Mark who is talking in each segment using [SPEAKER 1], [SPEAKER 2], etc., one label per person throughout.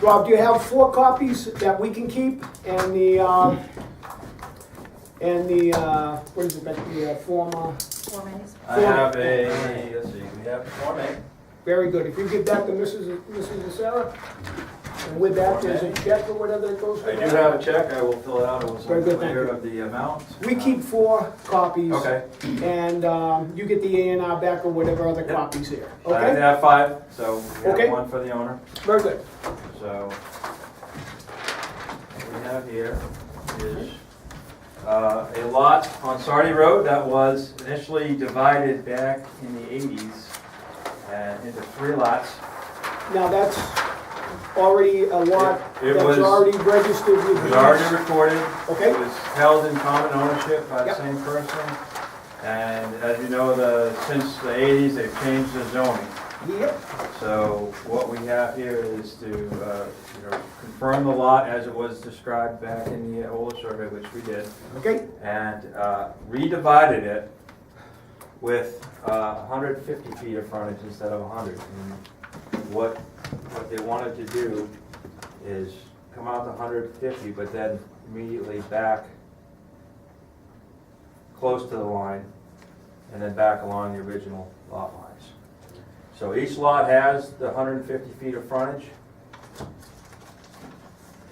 [SPEAKER 1] Rob, do you have four copies that we can keep and the, um, and the, uh, what is it, that the uh, former,
[SPEAKER 2] Four minutes.
[SPEAKER 3] I have a, let's see, we have Form A.
[SPEAKER 1] very good. If you give that to Mrs. Mrs. Sarah, and with that, there's a check or whatever that goes.
[SPEAKER 3] I
[SPEAKER 1] with
[SPEAKER 3] do
[SPEAKER 1] it.
[SPEAKER 3] have a check, I will fill it out, it was
[SPEAKER 1] Very good,
[SPEAKER 3] unclear
[SPEAKER 1] thank you.
[SPEAKER 3] of the amount. Um,
[SPEAKER 1] We keep four copies.
[SPEAKER 3] Okay.
[SPEAKER 1] And, um, you get the A and R back or whatever other
[SPEAKER 3] Yep.
[SPEAKER 1] copies here,
[SPEAKER 3] I
[SPEAKER 1] okay?
[SPEAKER 3] have five, so we
[SPEAKER 1] Okay.
[SPEAKER 3] have one for the owner,
[SPEAKER 1] Very good.
[SPEAKER 3] so. What we have here is uh, a lot on Sardi Road that was initially divided back in the eighties uh, into three lots.
[SPEAKER 1] Now, that's already a lot,
[SPEAKER 3] It- it
[SPEAKER 1] that's
[SPEAKER 3] was-
[SPEAKER 1] already registered
[SPEAKER 3] It
[SPEAKER 1] with
[SPEAKER 3] was
[SPEAKER 1] the-
[SPEAKER 3] already recorded, It
[SPEAKER 1] Okay,
[SPEAKER 3] was held in common ownership by the
[SPEAKER 1] Yep.
[SPEAKER 3] same person. And as you know, the, since the eighties, they've changed the zoning.
[SPEAKER 1] yep,
[SPEAKER 3] So what we have here is to, uh, you know, confirm the lot as it was described back in the old survey, which we did,
[SPEAKER 1] okay,
[SPEAKER 3] and uh, redivided it with uh, 150 feet of frontage instead of 100. And What, what they wanted to do is come out to 150, but then immediately back close to the line, and then back along the original lot lines. So each lot has the 150 feet of frontage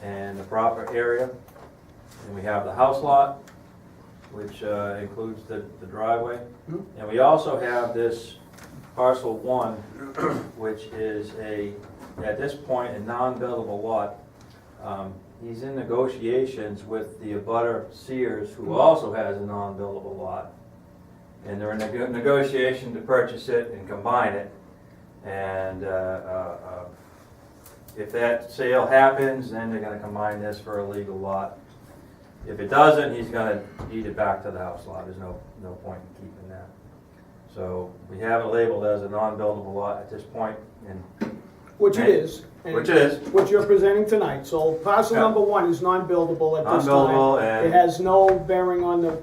[SPEAKER 3] and the proper area. And we have the house lot, which uh, includes the the driveway.
[SPEAKER 1] Mhm.
[SPEAKER 3] And we also have this parcel one, which is a, at this point, a non-buildable lot. Um, He's in negotiations with the abutter Sears, who also has a non-buildable lot. And they're in nego- negotiation to purchase it and combine it. And uh, uh, uh, if that sale happens, then they're gonna combine this for a legal lot. If it doesn't, he's gonna deed it back to the house lot, there's no, no point in keeping that. So we have it labeled as a non-buildable lot at this point, and,
[SPEAKER 1] which it is. and
[SPEAKER 3] which is
[SPEAKER 1] What you're presenting tonight, so parcel
[SPEAKER 3] Yeah.
[SPEAKER 1] number one is non-buildable at this time.
[SPEAKER 3] non-buildable,
[SPEAKER 1] It
[SPEAKER 3] and
[SPEAKER 1] has no bearing on the,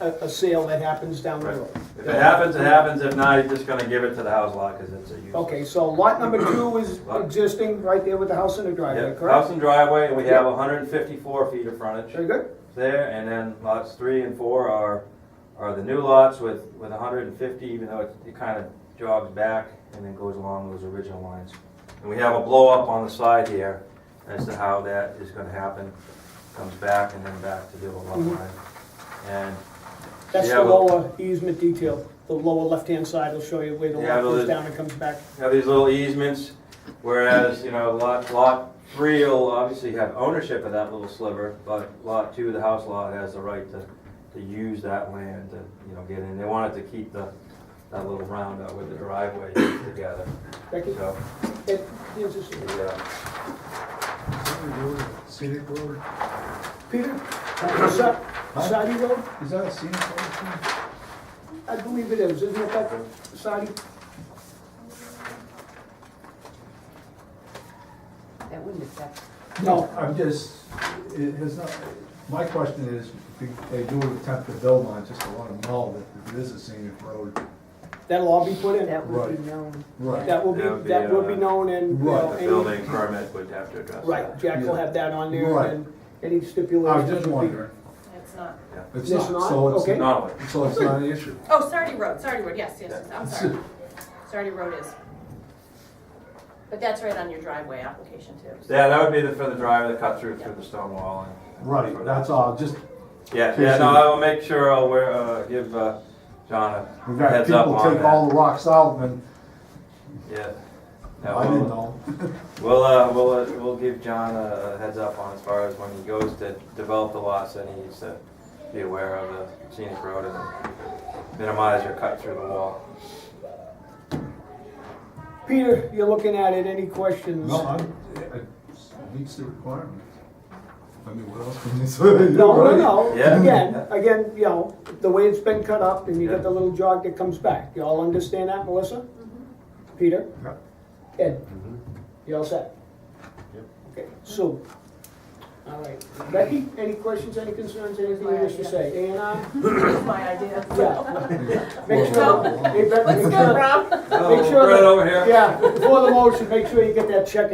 [SPEAKER 1] a, a sale that happens down the
[SPEAKER 3] Right.
[SPEAKER 1] road.
[SPEAKER 3] if it happens, it happens, if not, he's just gonna give it to the house lot, because it's a use.
[SPEAKER 1] Okay, so lot number two is
[SPEAKER 3] Lot.
[SPEAKER 1] existing right there with the house and the driveway,
[SPEAKER 3] Yeah, House
[SPEAKER 1] correct?
[SPEAKER 3] and driveway, and we
[SPEAKER 1] Yeah.
[SPEAKER 3] have hundred and fifty-four feet of frontage.
[SPEAKER 1] Very good,
[SPEAKER 3] there, and then lots three and four are, are the new lots with, with hundred and fifty, even though it, it kind of jogs back and then goes along those original lines. And we have a blow up on the side here as to how that is gonna happen, comes back and then back to the old lot
[SPEAKER 1] Mhm.
[SPEAKER 3] line. And
[SPEAKER 1] that's
[SPEAKER 3] Yeah,
[SPEAKER 1] the
[SPEAKER 3] well-
[SPEAKER 1] lower easement detail, the lower left-hand side will show you where the
[SPEAKER 3] Yeah,
[SPEAKER 1] lot
[SPEAKER 3] well,
[SPEAKER 1] goes
[SPEAKER 3] it-
[SPEAKER 1] down and comes back.
[SPEAKER 3] have these little easements, whereas, you know, lot, lot three will obviously have ownership of that little sliver, but lot two, the house lot, has the right to, to use that land to, you know, get in. They wanted to keep the, that little roundabout with the driveway together,
[SPEAKER 1] Becky,
[SPEAKER 3] so, uh,
[SPEAKER 1] it, here's this-
[SPEAKER 3] yeah.
[SPEAKER 4] Scenic road,
[SPEAKER 1] Peter, what's up? Sadi Road?
[SPEAKER 4] is that a scenic road? too?
[SPEAKER 1] I believe it is, isn't it that, Sadi?
[SPEAKER 2] That wouldn't affect.
[SPEAKER 1] No.
[SPEAKER 4] I'm just, it has not, my question is, if they do attempt to build on, just to let them know that it is a scenic road.
[SPEAKER 1] That'll all be put in.
[SPEAKER 2] That would
[SPEAKER 4] Right.
[SPEAKER 2] be known.
[SPEAKER 4] Right.
[SPEAKER 1] That will
[SPEAKER 3] That
[SPEAKER 1] be,
[SPEAKER 3] would be,
[SPEAKER 1] that will be
[SPEAKER 3] uh,
[SPEAKER 1] known and, you
[SPEAKER 4] Right,
[SPEAKER 1] know,
[SPEAKER 4] the
[SPEAKER 1] any-
[SPEAKER 3] Building permit would have to address that.
[SPEAKER 1] right, Jack will have that on there
[SPEAKER 4] Right.
[SPEAKER 1] and any
[SPEAKER 4] I
[SPEAKER 1] stipulations.
[SPEAKER 4] was just
[SPEAKER 1] would be-
[SPEAKER 4] wondering.
[SPEAKER 5] It's not.
[SPEAKER 4] It's
[SPEAKER 1] It's
[SPEAKER 4] not,
[SPEAKER 1] not?
[SPEAKER 4] so
[SPEAKER 1] Okay.
[SPEAKER 4] it's not,
[SPEAKER 3] Not only,
[SPEAKER 4] so it's not an issue.
[SPEAKER 5] Oh, Sardi Road, Sardi Road, yes, yes, yes, I'm sorry. Sardi Road is. But that's right on your driveway application too. so-
[SPEAKER 3] yeah, that would be the, for the driver that cut through, through the stone wall and.
[SPEAKER 4] Right, that's all, just,
[SPEAKER 3] Yeah, yeah, no, I will make sure I'll wear, uh, give, uh, John
[SPEAKER 4] we've
[SPEAKER 3] a
[SPEAKER 4] got
[SPEAKER 3] heads up
[SPEAKER 4] people
[SPEAKER 3] on
[SPEAKER 4] take all
[SPEAKER 3] that.
[SPEAKER 4] the rocks out and
[SPEAKER 3] Yeah. No,
[SPEAKER 4] I didn't
[SPEAKER 3] we'll-
[SPEAKER 4] know.
[SPEAKER 3] We'll, uh, we'll, uh, we'll give John a a heads up on as far as when he goes to develop the lots, then he needs to be aware of the scenic road and minimize your cut through the wall.
[SPEAKER 1] Peter, you're looking at it, any questions?
[SPEAKER 4] No, I, it meets the requirement. I mean, what else can you say?
[SPEAKER 1] No, no,
[SPEAKER 4] Right?
[SPEAKER 1] no,
[SPEAKER 3] Yeah.
[SPEAKER 1] again, again, you know, the way it's been cut up and you
[SPEAKER 3] Yeah.
[SPEAKER 1] got the little jog that comes back, you all understand that, Melissa?
[SPEAKER 5] Mm-hmm.
[SPEAKER 1] Peter?
[SPEAKER 4] Yeah.
[SPEAKER 1] Ed? You all set?
[SPEAKER 3] Mm-hmm. Yep.
[SPEAKER 1] Okay, Sue? All right, Becky, any questions, any concerns, anything you wish to say, A and R?
[SPEAKER 5] That's my idea.
[SPEAKER 1] Yeah. Make
[SPEAKER 4] Well,
[SPEAKER 1] sure, hey, Becky,
[SPEAKER 5] Let's
[SPEAKER 1] make
[SPEAKER 5] go,
[SPEAKER 1] sure,
[SPEAKER 5] Rob.
[SPEAKER 3] Oh,
[SPEAKER 1] sure
[SPEAKER 3] right
[SPEAKER 1] that-
[SPEAKER 3] over here.
[SPEAKER 1] yeah, before the motion, make sure you get that check in.